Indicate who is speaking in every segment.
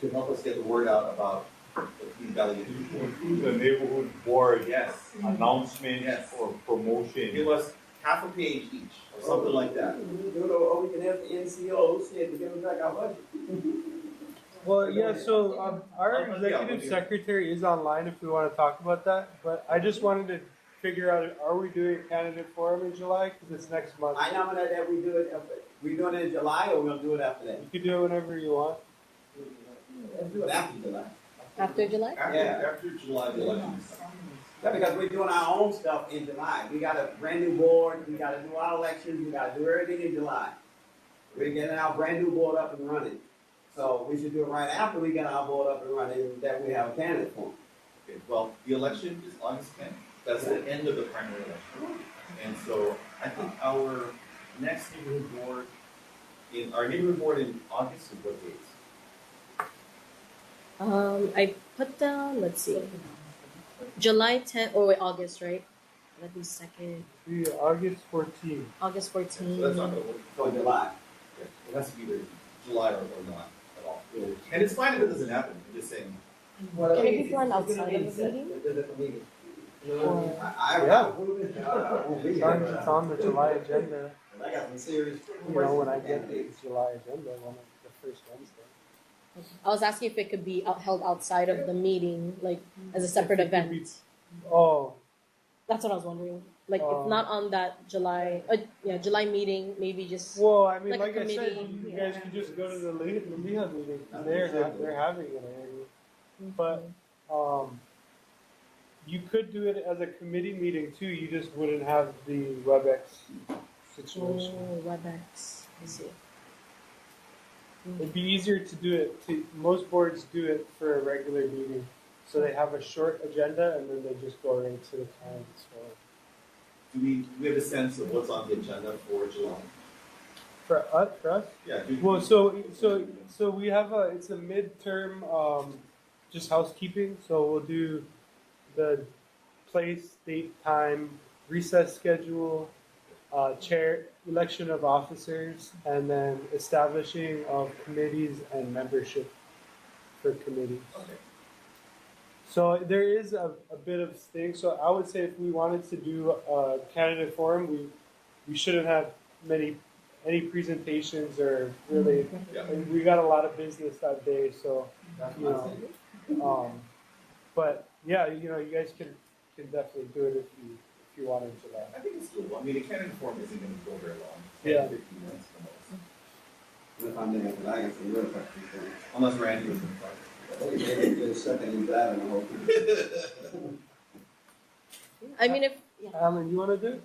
Speaker 1: to help us get the word out about the Green Valley Youth Board.
Speaker 2: Do the neighborhood board
Speaker 1: Yes,
Speaker 2: announcement
Speaker 1: Yes.
Speaker 2: or
Speaker 1: give
Speaker 2: promotion.
Speaker 1: us half a page each, or something like that.
Speaker 3: You know, or we can have the NCO said to give us back our budget.
Speaker 4: Well, yeah, so um,
Speaker 1: Um,
Speaker 4: our
Speaker 1: yeah, we'll
Speaker 4: executive
Speaker 1: do.
Speaker 4: secretary is online if we want to talk about that, but I just wanted to figure out, are we doing a candidate forum in July? Because it's next month.
Speaker 3: I nominate that we do it, after- we doing it in July or we gonna do it after that?
Speaker 4: You can do it whenever you want.
Speaker 3: Let's do it after July.
Speaker 5: After July?
Speaker 1: After,
Speaker 3: Yeah.
Speaker 1: after July, the elections.
Speaker 3: Yeah, because we're doing our own stuff in July. We got a brand new board, we gotta do our elections, we gotta do everything in July. We're getting our brand new board up and running. So we should do it right after we get our board up and running, that we have a candidate for.
Speaker 1: Okay, well, the election is August tenth, that's the end of the primary election. And so I think our next neighborhood board, in, our neighborhood board in August is what dates?
Speaker 5: Um, I put down, let's see, July 10th, oh wait, August, right? Let me second,
Speaker 4: Be August fourteenth.
Speaker 5: August
Speaker 1: So that's not
Speaker 5: 14th.
Speaker 1: gonna work.
Speaker 3: So July.
Speaker 1: It has to be either July or, or not at all. And it's fine if it doesn't happen, I'm just saying,
Speaker 5: Can we do one outside of the meeting? Or-
Speaker 3: I, I.
Speaker 4: Yeah.
Speaker 3: I won't be
Speaker 4: It's
Speaker 3: here.
Speaker 4: on, it's on the July agenda.
Speaker 3: I got some serious.
Speaker 4: You know, when I get the July agenda, one of the first Wednesday.
Speaker 5: I was asking if it could be out- held outside of the meeting, like as a separate
Speaker 4: If it could be-
Speaker 5: event.
Speaker 4: Oh,
Speaker 5: That's what I was wondering. Like if
Speaker 4: Um,
Speaker 5: not on that July, uh, yeah, July meeting, maybe just,
Speaker 4: well, I mean,
Speaker 5: Like a
Speaker 4: like I said,
Speaker 5: committee.
Speaker 4: you guys can just go to the Le- the Leah meeting. and They're, ha- they're having it already.
Speaker 5: Mm-hmm.
Speaker 4: But um, you could do it as a committee meeting too. You just wouldn't have the WebEx situation.
Speaker 5: oh, WebEx, I see.
Speaker 4: It'd be easier to do it. To, most boards do it for a regular meeting, so they have a short agenda and then they just go right to the time. So
Speaker 1: do we, do we have a sense of what's on the agenda for July?
Speaker 4: for us, for us,
Speaker 1: Yeah, do.
Speaker 4: well, so so so we have a it's a midterm, um, just housekeeping. So we'll do the place, date, time, recess schedule, uh, chair, election of officers, and then establishing of committees and membership for committees.
Speaker 1: Okay.
Speaker 4: So there is a, a bit of thing. So I would say if we wanted to do a candidate forum, we we shouldn't have many any presentations or really.
Speaker 1: Yeah.
Speaker 4: and we got a lot of business that day, so
Speaker 3: That's
Speaker 4: you know. Um, but yeah, you know, you guys can can definitely do it if you if you wanted to. That.
Speaker 1: I think it's doable. I mean, the Canon form isn't gonna go very long.
Speaker 4: Yeah.
Speaker 1: 15 minutes the most.
Speaker 3: If I'm there, but I got some real questions.
Speaker 1: Unless Randy was in
Speaker 3: Okay, maybe just second and driving the whole thing.
Speaker 1: front.
Speaker 5: I mean, if, yeah,
Speaker 4: Alan, you want to do?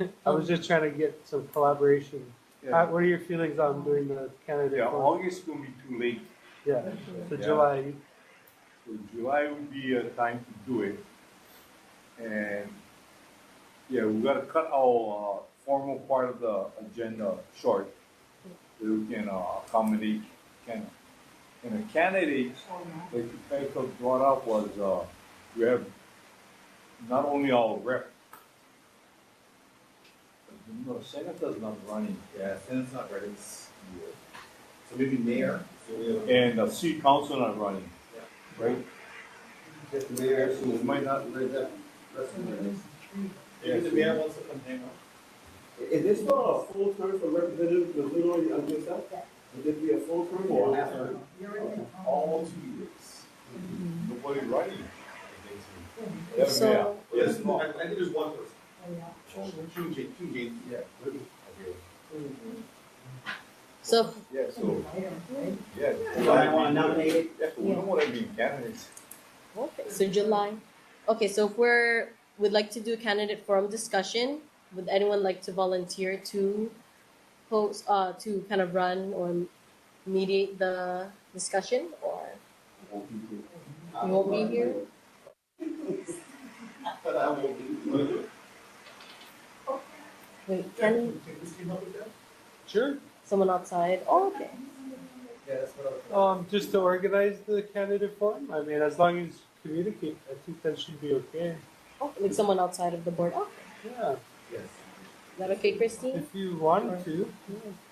Speaker 4: it? I was just trying to get some collaboration. How- what are your feelings on doing the candidate?
Speaker 2: Yeah,
Speaker 4: forum?
Speaker 2: August will be too late,
Speaker 4: yeah. So
Speaker 2: Yeah.
Speaker 4: July.
Speaker 2: so July would be a time to do it. And, yeah, we gotta cut our uh, formal part of the agenda short. So we can uh, accommodate, can, and the candidates, like you guys have brought up was, uh, we have not only our rep. No, senator's not running.
Speaker 1: Yeah, Canon's not ready. It's- So maybe mayor? So we have-
Speaker 2: and the city council not running. Right?
Speaker 3: Just the mayor, so
Speaker 2: It might not,
Speaker 3: read that. That's what it is.
Speaker 1: Maybe the mayor wants to come hang out.
Speaker 3: Is this for a full term for representative, because we don't, I'm just up? Would it be a full term or half term?
Speaker 1: All two years.
Speaker 2: nobody running. Yeah, yeah.
Speaker 5: so,
Speaker 1: Yes, no, I, I think there's one person. Two James, two James.
Speaker 2: Yeah.
Speaker 5: so
Speaker 2: Yeah, so, yeah.
Speaker 3: So I want to nominate it.
Speaker 2: Yeah, so we don't wanna be candidates.
Speaker 5: Okay, so July. Okay, so if we're, we'd like to do a candidate forum discussion, would anyone like to volunteer to host, uh, to kind of run or mediate the discussion or? You won't be here?
Speaker 3: But I will be. here.
Speaker 5: Wait, can
Speaker 1: Christine help with that?
Speaker 4: Sure.
Speaker 5: someone outside? Oh, okay.
Speaker 1: Yeah, that's what I was.
Speaker 4: Um, just to organize the candidate forum. I mean, as long as you communicate, I think that should be okay.
Speaker 5: Oh, like someone outside of the board. Oh,
Speaker 4: Yeah,
Speaker 1: Yes.
Speaker 5: is that okay, Christine?
Speaker 4: if you wanted to.